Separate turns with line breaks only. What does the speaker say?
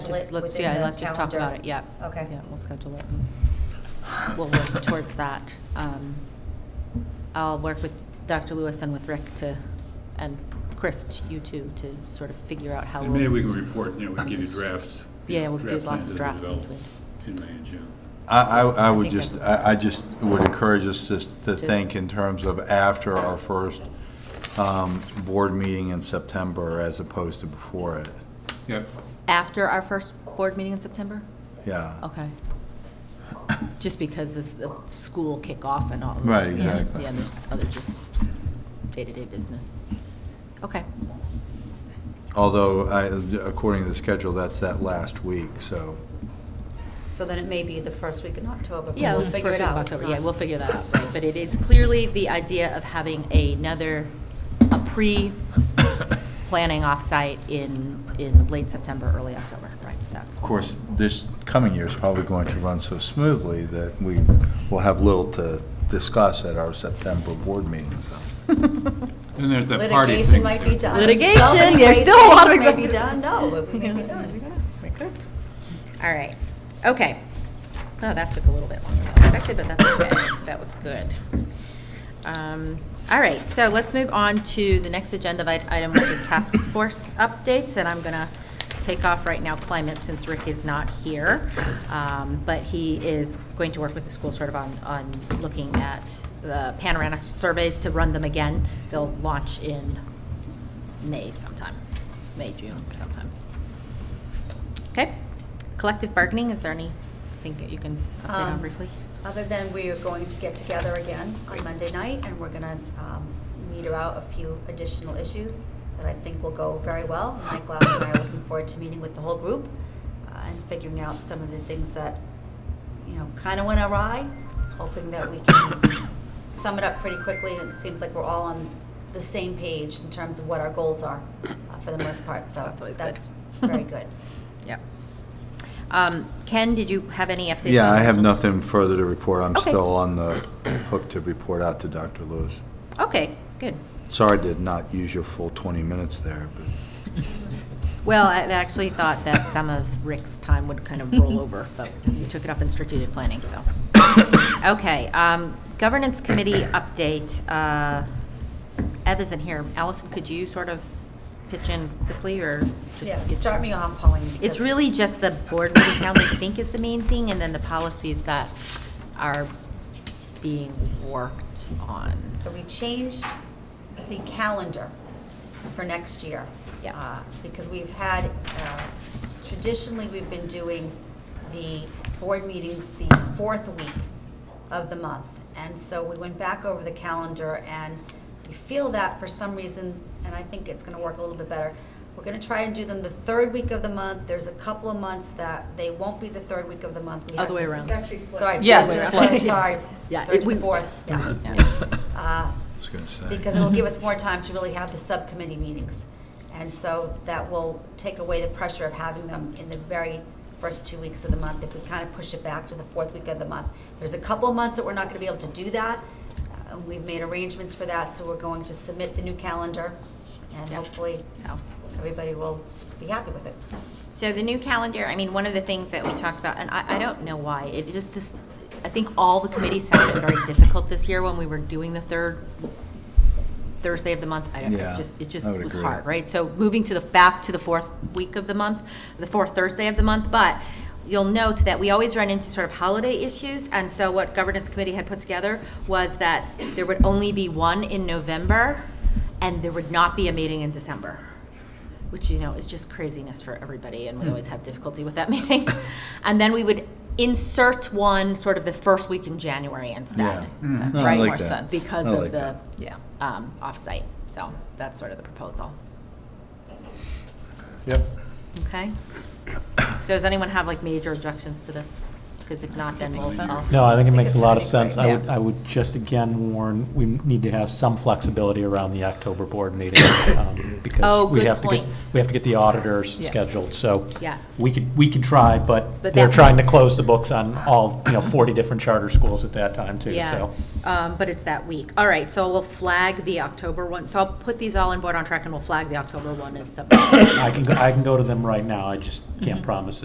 schedule
just-
it
let's-
within
Yeah,
the
let's just talk about
calendar.
it, yeah.
Okay.
Yeah, we'll schedule it. We'll work towards that. Um, I'll work with Dr. Lewis and with Rick to, and Chris, you two, to sort of figure out how
And maybe
we'll,
we can report, you know, we can give you drafts. you
Yeah,
know,
we'll do
draft
lots
plans
of
that
drafts in
we develop In May and June.
I, I, I would
think
just,
that's-
I, I just would encourage us to, to think in terms of after our first, um, board meeting in September as opposed to before it.
Yep.
after our first board meeting in September?
Yeah.
Okay. Just because it's the school kickoff and all.
Right,
yeah,
exactly.
Yeah, there's other just day-to-day business. Okay,
Although, I, according to the schedule, that's that last week, so.
So then it may be the first week in October, but
yeah,
we'll
it's
figure
first
it
week of
out. It's
October, yeah,
not-
we'll figure that out, right? But it is clearly the idea of having another, a pre-planning offsite in, in late September, early October, right? That's,
Of course, this coming year is probably going to run so smoothly that we will have little to discuss at our September board meeting, so.
And there's that party
Litigation
thing.
might
too.
be done.
Litigation,
So many
there's
great
still a lot of
things May be done,
executive-
no, but we may be done.
all right, okay. Oh, that took a little bit longer than expected, but that's okay, that was good. Um, All right, so let's move on to the next agenda i- item, which is task force updates, and I'm gonna take off right now climate since Rick is not here. Um, But he is going to work with the school sort of on, on looking at the panorama surveys to run them again. They'll launch in May sometime, May, June sometime. Okay, collective bargaining, is there anything that you can update on
Um,
briefly?
Other than we are going to get together again on Monday night, and we're gonna um, meter out a few additional issues that I think will go very well. Mike Glass and I are looking forward to meeting with the whole group uh, and figuring out some of the things that, you know, kind of went awry, hoping that we can sum it up pretty quickly, and it seems like we're all on the same page in terms of what our goals are uh, for the most part, so
That's always good.
that's very good.
Yep. Um, Ken, did you have any updates?
Yeah,
on-
I have nothing further to report. I'm
Okay.
still on the hook to report out to Dr. Lewis.
Okay, good.
Sorry to not use your full 20 minutes there, but
Well, I actually thought that some of Rick's time would kind of roll over, but you took it up in strategic planning, so. Okay, um, governance committee update. Uh, Ev isn't here. Allison, could you sort of pitch in quickly or? just
Yeah,
get-
start me off, Pauline.
It's
because-
really just the board meeting calendar, I think, is the main thing, and then the policies that are being worked on.
So we changed the calendar for next year.
Yeah.
uh, Because we've had, uh, traditionally, we've been doing the board meetings the fourth week of the month. And so we went back over the calendar and we feel that for some reason, and I think it's gonna work a little bit better. We're gonna try and do them the third week of the month. There's a couple of months that they won't be the third week of the month. We have
Other way
to-
around.
Sorry.
Yeah,
third
it's
to fourth,
flipped.
Sorry.
Yeah,
Third
it- we-
to fourth, yeah.
Yeah.
Uh,
I was going to say.
because it'll give us more time to really have the subcommittee meetings. And so that will take away the pressure of having them in the very first two weeks of the month, if we kind of push it back to the fourth week of the month. There's a couple of months that we're not going to be able to do that. Uh, We've made arrangements for that, so we're going to submit the new calendar, and hopefully,
So.
everybody will be happy with it.
So the new calendar, I mean, one of the things that we talked about, and I, I don't know why, it just this, I think all the committees found it very difficult this year when we were doing the third Thursday of the month. I don't,
Yeah,
it just, it just
I would
was
agree.
hard, right? So moving to the, back to the fourth week of the month, the fourth Thursday of the month, but you'll note that we always run into sort of holiday issues. And so what governance committee had put together was that there would only be one in November and there would not be a meeting in December which you know is just craziness for everybody, and we always have difficulty with that meeting. and then we would insert one sort of the first week in January instead,
Yeah. Mm.
Hmm. That
No, I
made
like
more
that.
sense because
I
of
like
the
that.
yeah um, offsite. So that's sort of the proposal.
Yep.
Okay. So does anyone have like major objections to this? Because if not, then we'll. I'll-
No, I think it makes a lot of sense. I would,
Yeah.
I would just again warn, we need to have some flexibility around the October board meeting. um,
Oh,
Because we
good
have to get,
point.
we have to get the auditors
Yeah.
scheduled, so.
Yeah.
We could, we could try, but
But
they're
that
trying to
might-
close the books on all, you know, 40 different charter schools at that time too,
Yeah,
so.
um, but it's that week. All right, so we'll flag the October one. So I'll put these all in board on track, and we'll flag the October one as subject. Mm-hmm.
I can, go- I can go to them right now. I just can't promise